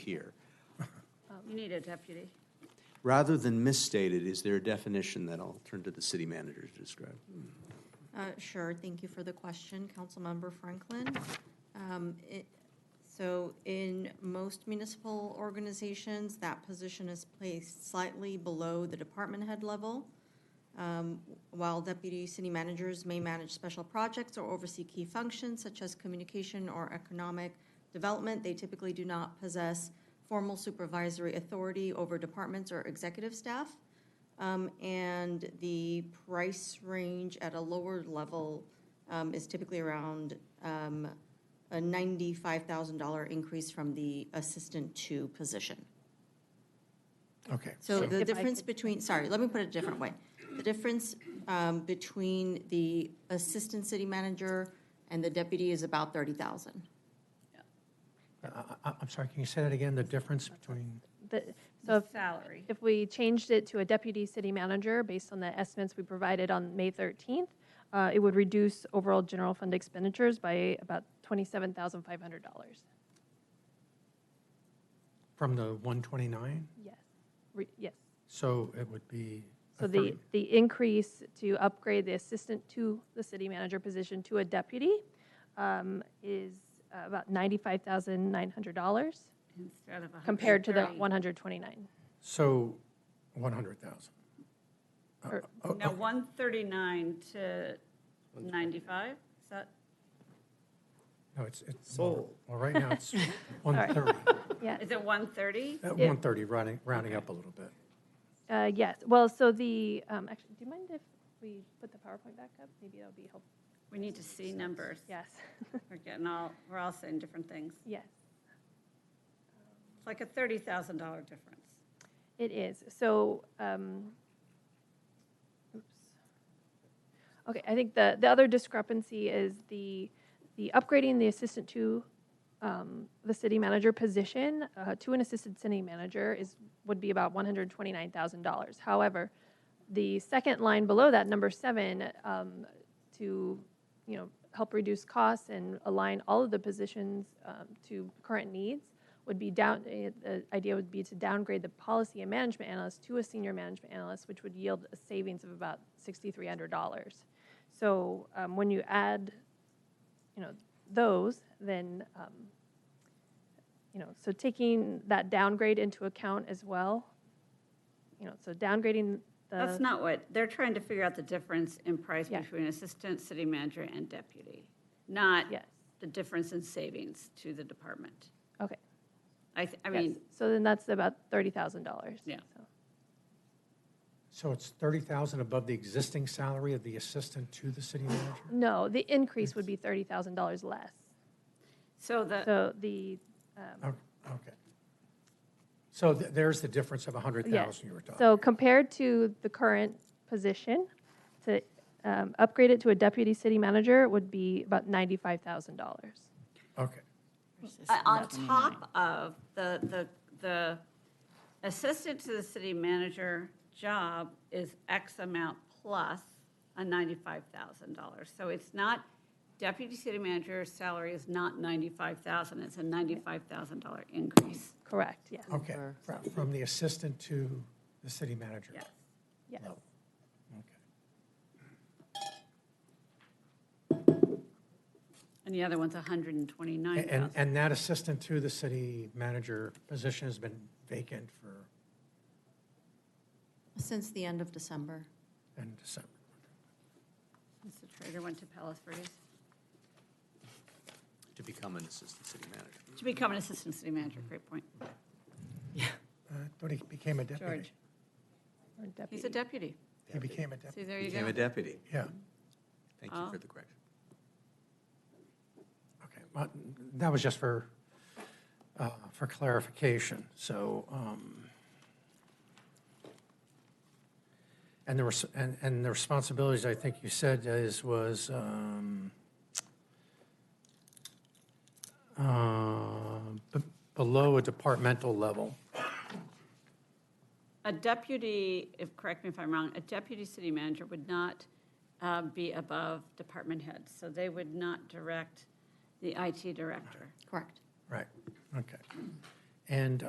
here. Oh, You need a deputy. Rather than misstated, is there a definition that I'll turn to the city manager to describe? Uh, Sure, thank you for the question, Councilmember Franklin. Um, it- So in most municipal organizations, that position is placed slightly below the department head level. Um, While deputy city managers may manage special projects or oversee key functions such as communication or economic development, they typically do not possess formal supervisory authority over departments or executive staff. Um, and the price range at a lower level um, is typically around um, a $95,000 increase from the assistant two position. Okay. So the If I difference between, sorry, let me put it a different way. The difference um, between the assistant city manager and the deputy is about 30,000. I- I- I'm sorry, can you say that again, the difference between, The- So if, Salary. if we changed it to a deputy city manager, based on the estimates we provided on May 13th, uh, it would reduce overall general fund expenditures by about $27,500. from the 129? Yes, Re- yes. So it would be. a So the, third. the increase to upgrade the assistant to the city manager position to a deputy um, is uh, about $95,900 Instead of a hundred and compared to the thirty. 129. So 100,000. Or- Oh, Now, oh, one thirty-nine to ninety-five, is that, No, it's, it's, more. well, right now it's 130, Yeah, is it one thirty? Uh, 130, rounding, rounding up a little bit. Uh, Yes, well, so the, um, actually, do you mind if we put the PowerPoint back up? Maybe that'll be helpful. We need to see numbers. Yes, We're getting all, we're all saying different things. yes, It's like a thirty thousand dollar difference. it is. So, um, oops. Okay, I think the, the other discrepancy is the, the upgrading the assistant to um, the city manager position uh, to an assistant city manager is, would be about $129,000. However, the second line below that, number seven, um, to, you know, help reduce costs and align all of the positions um, to current needs would be down, eh, the idea would be to downgrade the policy and management analyst to a senior management analyst, which would yield a savings of about $6,300. So um, when you add, you know, those, then, um, you know, so taking that downgrade into account as well, you know, so downgrading the. That's not what, they're trying to figure out the difference in price Yeah. between assistant city manager and deputy, not Yes, the difference in savings to the department. okay. I, th- I Yes. mean, So then that's about $30,000. Yeah. So- So it's 30,000 above the existing salary of the assistant to the city manager? No, the increase would be $30,000 less. so the, So the, um, Oh, Okay. So th- there's the difference of yeah. 100,000 you were talking. So compared to the current position, to um, upgrade it to a deputy city manager would be about $95,000. Okay, uh, on top of the, the, the assistant to the city manager job is X amount plus a ninety-five thousand dollars. So it's not, deputy city manager's salary is not ninety-five thousand, it's a ninety-five thousand dollar increase. Correct, yes, okay. Fro- From the assistant to the city manager. Yes. yes. level. Okay. And the other one's a hundred and twenty-nine And, thousand. and that assistant to the city manager position has been vacant for, Since the end of December. in December. Mr. Trader went to Palos Verdes To become an assistant city manager. to become an assistant city manager, great point. Uh, I thought he became a deputy. George, or he's a deputy. deputy. He became a See, deputy, there you Became a go. deputy. yeah, Thank you Oh. for the correction. okay. Well, That was just for, uh, for clarification, so. um, And the, res- and, and the responsibilities, I think you said, is, was, um, uh, b- below a departmental level. A deputy, if, correct me if I'm wrong, a deputy city manager would not uh, be above department heads. So they would not direct the IT director. Correct. Right, okay. And